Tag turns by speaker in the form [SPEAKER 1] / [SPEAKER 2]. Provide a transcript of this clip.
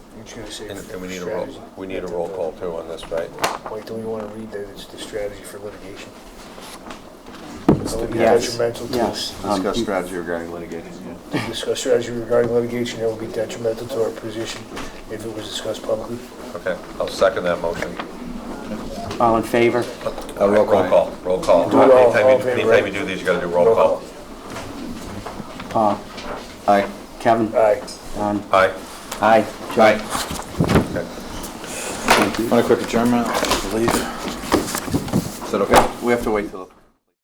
[SPEAKER 1] I'm just gonna say.
[SPEAKER 2] And and we need a roll, we need a roll call too on this, right?
[SPEAKER 1] Wait, do we wanna read that it's the strategy for litigation?
[SPEAKER 2] It's
[SPEAKER 1] That would be
[SPEAKER 3] Yes.
[SPEAKER 1] detrimental to
[SPEAKER 3] Yes.
[SPEAKER 1] us.
[SPEAKER 3] Um,
[SPEAKER 4] Discuss strategy regarding litigation.
[SPEAKER 1] Discuss strategy regarding litigation that would be detrimental to our position if it was discussed publicly.
[SPEAKER 2] Okay, I'll second that motion.
[SPEAKER 3] All in favor?
[SPEAKER 2] Uh, Roll call, roll call.
[SPEAKER 1] Do it all-
[SPEAKER 2] Anytime
[SPEAKER 1] all in
[SPEAKER 2] you-
[SPEAKER 1] favor,
[SPEAKER 2] anytime you
[SPEAKER 1] right?
[SPEAKER 2] do these, you gotta do roll call.
[SPEAKER 3] Paul?
[SPEAKER 4] Aye.
[SPEAKER 3] Uh, Kevin?
[SPEAKER 1] Aye.
[SPEAKER 3] Don?
[SPEAKER 2] Aye.
[SPEAKER 3] Aye.
[SPEAKER 2] Aye.
[SPEAKER 3] Thank you.
[SPEAKER 4] Want a quick adjournment, I believe. Is that okay? We have to wait till.